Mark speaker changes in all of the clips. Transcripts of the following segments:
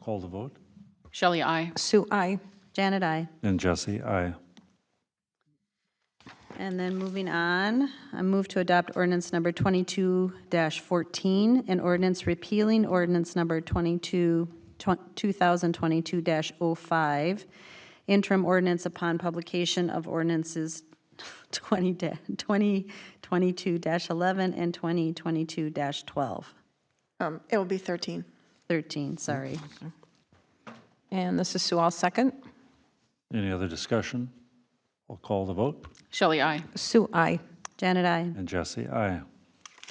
Speaker 1: Call the vote.
Speaker 2: Shelley, I.
Speaker 3: Sue, I.
Speaker 4: Janet, I.
Speaker 1: And Jesse, aye.
Speaker 4: And then moving on, I move to adopt ordinance number 22-14, an ordinance repealing ordinance number 22, 2022-05, interim ordinance upon publication of ordinances 20 da- 2022-11 and 2022-12,
Speaker 5: Um, It will be 13.
Speaker 4: 13, sorry.
Speaker 3: And this is Sue, I'll second.
Speaker 1: Any other discussion? We'll call the vote.
Speaker 2: Shelley, I.
Speaker 3: Sue, I.
Speaker 4: Janet, I.
Speaker 1: And Jesse, aye.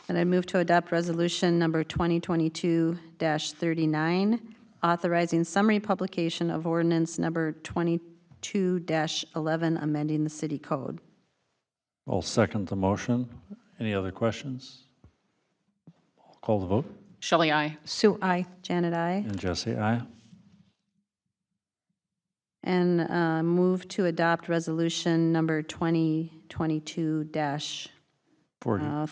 Speaker 4: And I move to adopt resolution number 2022-39, authorizing summary publication of ordinance number 22-11, amending the city code.
Speaker 1: I'll second the motion. Any other questions? I'll Call the vote.
Speaker 2: Shelley, I.
Speaker 3: Sue, I.
Speaker 4: Janet, I.
Speaker 1: And Jesse, aye.
Speaker 4: And uh, move to adopt resolution number 2022-40.
Speaker 1: 40.
Speaker 4: Uh,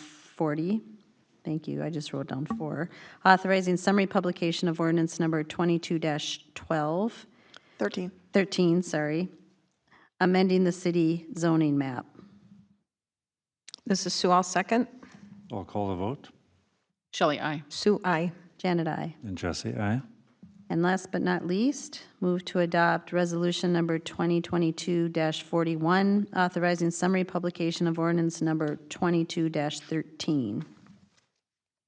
Speaker 4: Thank you, I just wrote down four. Authorizing summary publication of ordinance number 22-12,
Speaker 5: 13.
Speaker 4: 13, sorry, amending the city zoning map.
Speaker 3: This is Sue, I'll second.
Speaker 1: I'll call the vote.
Speaker 2: Shelley, I.
Speaker 3: Sue, I.
Speaker 4: Janet, I.
Speaker 1: And Jesse, aye.
Speaker 4: And last but not least, move to adopt Resolution Number 2022-41, authorizing summary publication of ordinance number 22-13.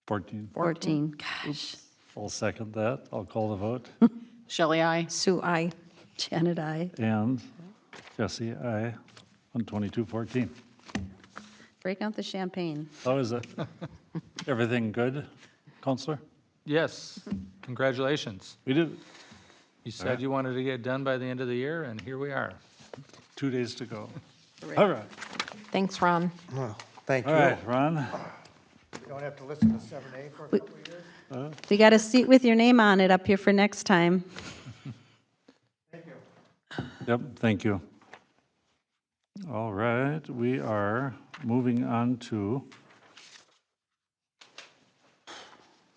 Speaker 1: 14.
Speaker 4: 14, gosh,
Speaker 1: I'll second that. I'll call the vote.
Speaker 2: Shelley, I.
Speaker 3: Sue, I.
Speaker 4: Janet, I.
Speaker 1: And Jesse, aye. On 2214.
Speaker 4: Break out the champagne.
Speaker 1: How is it? Everything good, Counselor?
Speaker 6: Yes, congratulations.
Speaker 1: We did,
Speaker 6: You said you wanted to get it done by the end of the year, and here we are.
Speaker 1: two days to go. All right,
Speaker 3: Thanks, Ron.
Speaker 7: Thank
Speaker 1: all
Speaker 7: you.
Speaker 1: right, Ron.
Speaker 7: Don't have to listen to 7A for a couple of years.
Speaker 4: We got a seat with your name on it up here for next time.
Speaker 1: Yep, thank you. All right, we are moving on to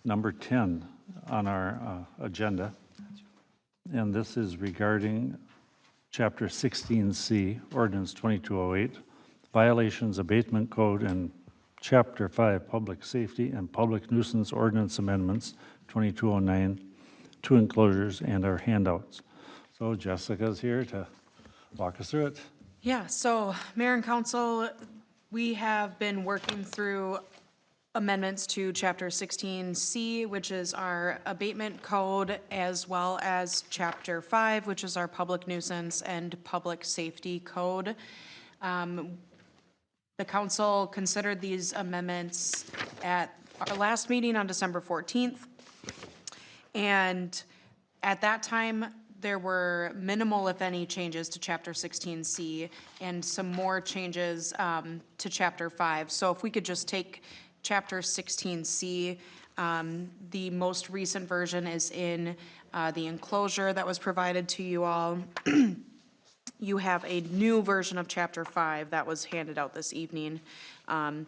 Speaker 1: number 10 on our uh, agenda. And this is regarding Chapter 16C, Ordinance 2208, Violations Abatement Code and Chapter 5 Public Safety and Public Nuisance Ordinance Amendments, 2209, to enclosures and our handouts. So Jessica's here to walk us through it.
Speaker 8: Yeah, so mayor and council, we have been working through amendments to chapter sixteen C, which is our abatement code, as well as chapter five, which is our public nuisance and public safety code. Um, the council considered these amendments at our last meeting on December fourteenth. And at that time, there were minimal, if any, changes to Chapter 16C and some more changes um, to Chapter 5. So if we could just take Chapter 16C, um, the most recent version is in uh, the enclosure that was provided to you all. You have a new version of Chapter 5 that was handed out this evening. Um,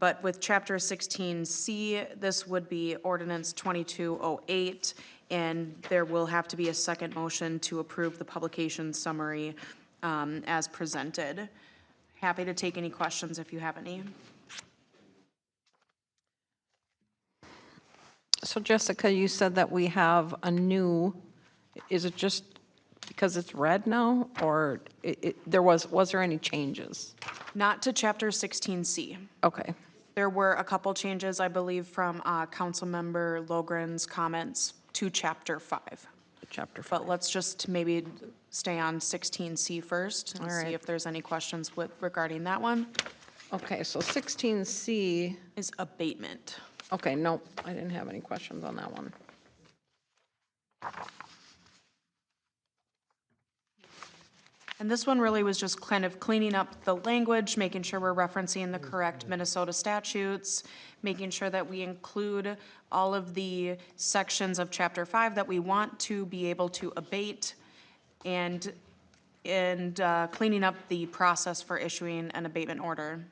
Speaker 8: But with Chapter 16C, this would be Ordinance 2208, and there will have to be a second motion to approve the publication summary um, as presented. Happy to take any questions if you have any.
Speaker 3: So Jessica, you said that we have a new, is it just because it's red now? Or it, it- there was, was there any changes?
Speaker 8: Not to Chapter 16C.
Speaker 3: Okay.
Speaker 8: There were a couple changes, I believe, from uh, Councilmember Logren's comments to Chapter 5.
Speaker 3: Chapter 5.
Speaker 8: But let's just maybe stay on 16C first and see if there's any questions with, regarding that one,
Speaker 3: Okay, so 16C,
Speaker 8: is abatement.
Speaker 3: okay, no, I didn't have any questions on that one.
Speaker 8: And this one really was just kind of cleaning up the language, making sure we're referencing the correct Minnesota statutes, making sure that we include all of the sections of Chapter 5 that we want to be able to abate, and, and uh, cleaning up the process for issuing an abatement order.